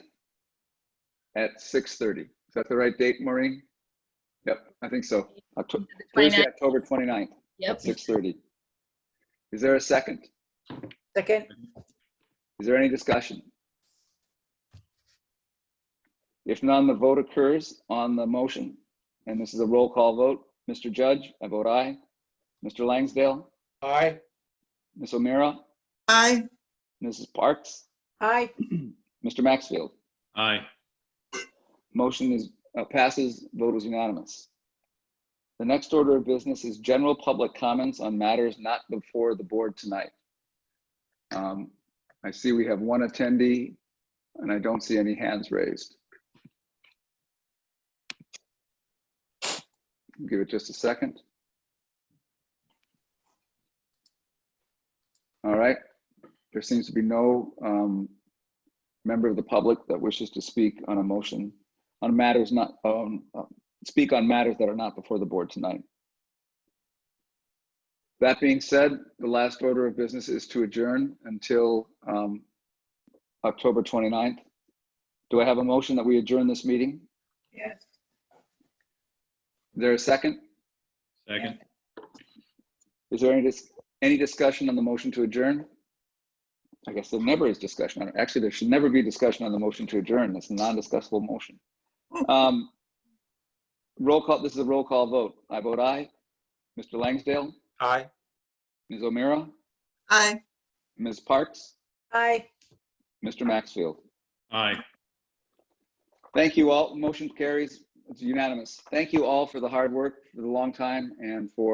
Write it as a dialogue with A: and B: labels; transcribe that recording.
A: at 6:30. Is that the right date, Maureen? Yep, I think so. Octo-
B: The
A: Thursday,
B: 29th.
A: October 29th
B: Yep.
A: at 6:30. Is there a second?
C: Second,
A: Is there any discussion? If none, the vote occurs on the motion, and this is a roll call vote. Mr. Judge, I vote aye. Mr. Langsdale,
D: Aye.
A: Ms. O'Meara,
E: Aye.
A: Mrs. Parks,
C: aye,
A: Mr. Maxfield.
F: Aye.
A: Motion is, uh, passes, vote is unanimous. The next order of business is general public comments on matters not before the board tonight. Um, I see we have one attendee, and I don't see any hands raised. Give it just a second. All right, there seems to be no um, member of the public that wishes to speak on a motion on matters not, um, uh, speak on matters that are not before the board tonight. That being said, the last order of business is to adjourn until um, October 29th. Do I have a motion that we adjourn this meeting?
C: yes.
A: Is there a second?
F: Second.
A: Is there any, dis- any discussion on the motion to adjourn? I guess there never is discussion. on Actually, there should never be discussion on the motion to adjourn. It's a non-discussable motion. Um, Roll call, this is a roll call vote. I vote aye. Mr. Langsdale,
D: Aye.
A: Ms. O'Meara,
E: Aye.
A: Ms. Parks,
C: Aye.
A: Mr. Maxfield.
F: Aye.
A: Thank you all. Motion carries. It's unanimous. Thank you all for the hard work, for the long time, and for